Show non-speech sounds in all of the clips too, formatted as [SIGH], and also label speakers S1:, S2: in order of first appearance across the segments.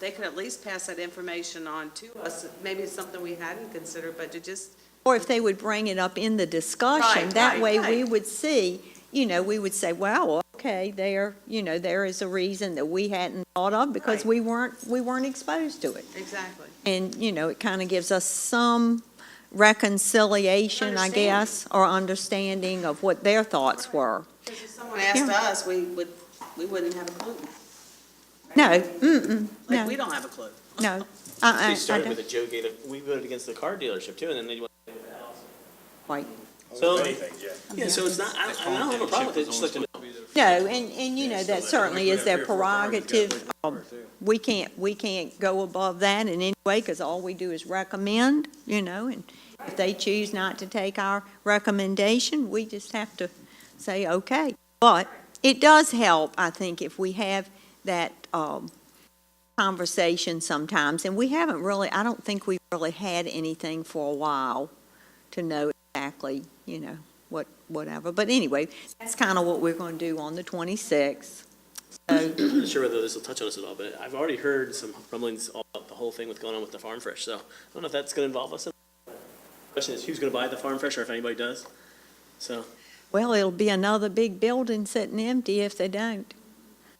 S1: they could at least pass that information on to us. Maybe it's something we hadn't considered, but to just,
S2: Or if they would bring it up in the discussion,
S1: Right,
S2: that
S1: right,
S2: way we
S1: right.
S2: would see, you know, we would say, wow, okay, there, you know, there is a reason that we hadn't thought of because
S1: Right.
S2: we weren't, we weren't exposed to it.
S1: exactly.
S2: And, you know, it kind of gives us some reconciliation, I
S1: Understanding.
S2: guess, or understanding of what their thoughts were.
S1: Because if someone asked
S2: Yeah.
S1: us, we would, we wouldn't have a clue.
S2: No, mm-mm,
S1: Like,
S2: no.
S1: we don't have a clue.
S2: no. I- I-
S3: They
S2: I
S3: started
S2: don't-
S3: with a Joe Gator, we voted against the car dealership too, and then they went.
S2: Right.
S3: So,
S4: Oh, Anything, yeah.
S3: yeah, so it's not, I, I don't have a problem with it, just like to know.
S2: No, and, and you know, that certainly is their prerogative. Um, We can't, we can't go above that in any way, because all we do is recommend, you know, and if they choose not to take our recommendation, we just have to say, okay. But it does help, I think, if we have that, um, conversation sometimes, and we haven't really, I don't think we've really had anything for a while to know exactly, you know, what, whatever. But anyway, that's kind of what we're going to do on the 26th.
S3: I'm not sure whether this will touch on us at all, but I've already heard some rumblings all about the whole thing with going on with the farm fresh, so I don't know if that's gonna involve us. Question is, who's gonna buy the farm fresh, or if anybody does? So,
S2: Well, it'll be another big building sitting empty if they don't. [LAUGHS]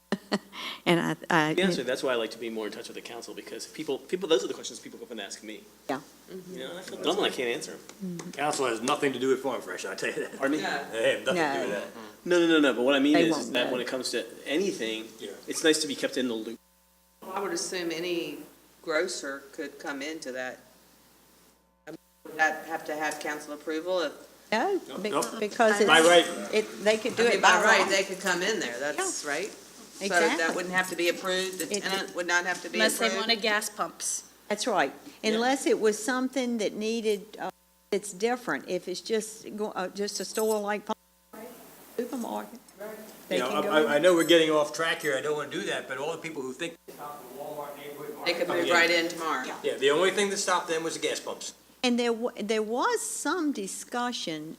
S2: And I,
S3: to be honest
S2: I,
S3: with you, that's why I like to be more in touch with the council, because people, people, those are the questions people go up and ask me.
S2: Yeah.
S3: You know, and I feel dumb when I can't answer them.
S4: Council has nothing to do with Farm Fresh, I tell you that. [LAUGHS]
S3: Pardon me?
S4: They have nothing to do
S2: No.
S4: with
S3: No, no, no, no, but what I mean
S2: They
S3: is, is
S2: won't
S3: that
S2: know.
S3: when it comes to anything,
S4: Yeah.
S3: it's nice to be kept in the loop.
S1: I would assume any grocer could come into that. I mean, Would that have to have council approval? If-
S2: no, be-
S4: Nope.
S2: because
S4: that. By
S2: it's,
S4: right,
S2: it, they could do
S1: I mean,
S2: it
S1: by
S2: by
S1: right,
S2: right.
S1: they could come in there, that's right. So that
S2: Exactly.
S1: wouldn't have to be approved, the
S2: It-
S1: tenant would not have to be
S5: Unless
S1: approved.
S5: they wanted gas pumps.
S2: That's right. Unless it was something that needed, uh, it's different. If it's just, go- uh, just a store like supermarket,
S4: you
S2: they
S4: know,
S2: can
S4: I,
S2: go.
S4: I- I know we're getting off track here, I don't wanna do that, but all the people who think.
S1: They could move right in tomorrow.
S4: Oh, Yeah, the only thing that stopped them was the gas pumps.
S2: And there, wa- there was some discussion.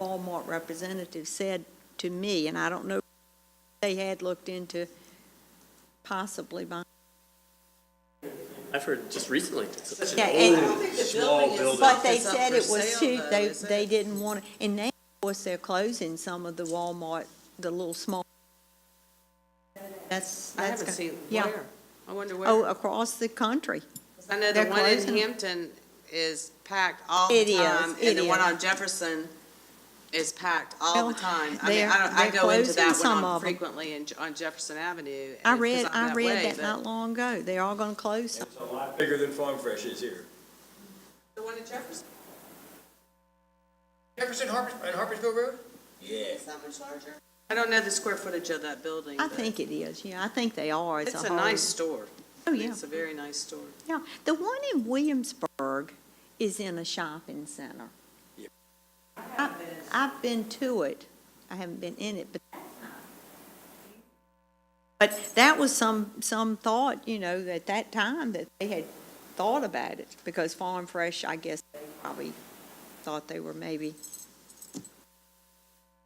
S2: Walmart representative said to me, and I don't know, if they had looked into possibly buying.
S3: I've heard just recently. It's such an
S2: Yeah,
S3: old-
S2: and-
S4: Small building.
S2: But they
S1: It's up
S2: said
S1: for
S2: it was
S1: sale,
S2: too,
S1: though,
S2: they,
S1: is
S2: they
S1: it?
S2: didn't want, to and now, of course, they're closing some of the Walmart, the little small. That's,
S1: I
S2: that's.
S1: haven't
S2: go-
S1: seen,
S2: yeah.
S1: where? I wonder where.
S2: Oh, across the country.
S1: I know the
S2: They're
S1: one in
S2: closing.
S1: Hampton is packed all the
S2: It is,
S1: time,
S2: it
S1: and the one
S2: is.
S1: on Jefferson is packed all
S2: Well,
S1: the time. I mean,
S2: they're-
S1: I don't, I
S2: they're
S1: go into
S2: closing
S1: that
S2: some
S1: one
S2: of
S1: on
S2: 'em.
S1: frequently in, on Jefferson Avenue.
S2: I
S1: and- 'cause
S2: read,
S1: I'm
S2: I
S1: way,
S2: read that
S1: but-
S2: not long ago. They're all gonna close some.
S4: It's a lot bigger than Farm Fresh is here.
S1: The one in Jefferson,
S4: Jefferson Harpers, and Harpersville Road? Yeah.
S1: is that much larger? I don't know the square footage of that building.
S2: I
S1: but
S2: think it is, yeah, I think they are as a
S1: It's
S2: whole.
S1: a nice store.
S2: Oh, yeah,
S1: It's a very nice store.
S2: yeah. The one in Williamsburg is in a shopping center.
S4: Yep.
S2: I- I've been to it, I haven't been in it, but. But that was some, some thought, you know, at that time that they had thought about it, because Farm Fresh, I guess, they probably thought they were maybe,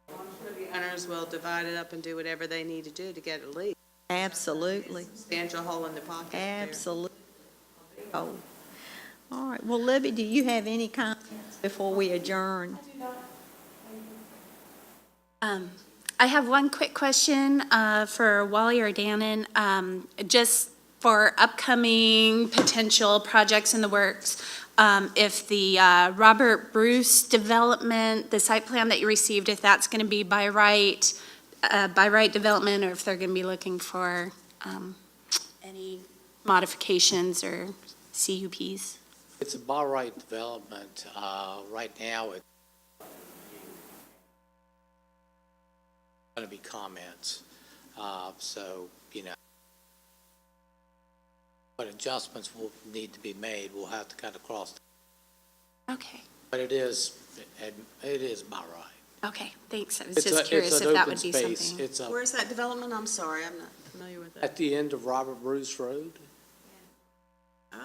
S1: I'm sure the owners will divide it up and do whatever they need to do to get it leased.
S2: absolutely,
S1: Substantial hole in the pocket there.
S2: absolutely. Oh, all right, well, Libby, do you have any comments before we adjourn?
S5: Um, I have one quick question uh, for Wally or Dannon, um, just for upcoming potential projects in the works. Um, If the uh, Robert Bruce development, the site plan that you received, if that's going to be by right, uh, by right development, or if they're going to be looking for um, any modifications or CUPs.
S6: It's a bar right development. Uh, Right now, it's going to be comments. Uh, So, you know, but adjustments will need to be made. We'll have to kind of cross.
S5: Okay,
S6: But it is, it it is by right.
S5: okay, thanks. I was
S6: It's a-
S5: just
S6: it's
S5: curious
S6: an
S5: if that
S6: open
S5: would be
S6: space.
S5: something.
S6: It's a-
S1: Where's that development? I'm sorry, I'm not familiar with that.
S6: at the end of Robert Bruce Road.
S1: Oh,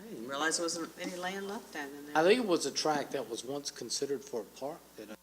S1: I didn't realize there wasn't any land left down in
S6: I
S1: there.
S6: think it was a tract that was once considered for a park that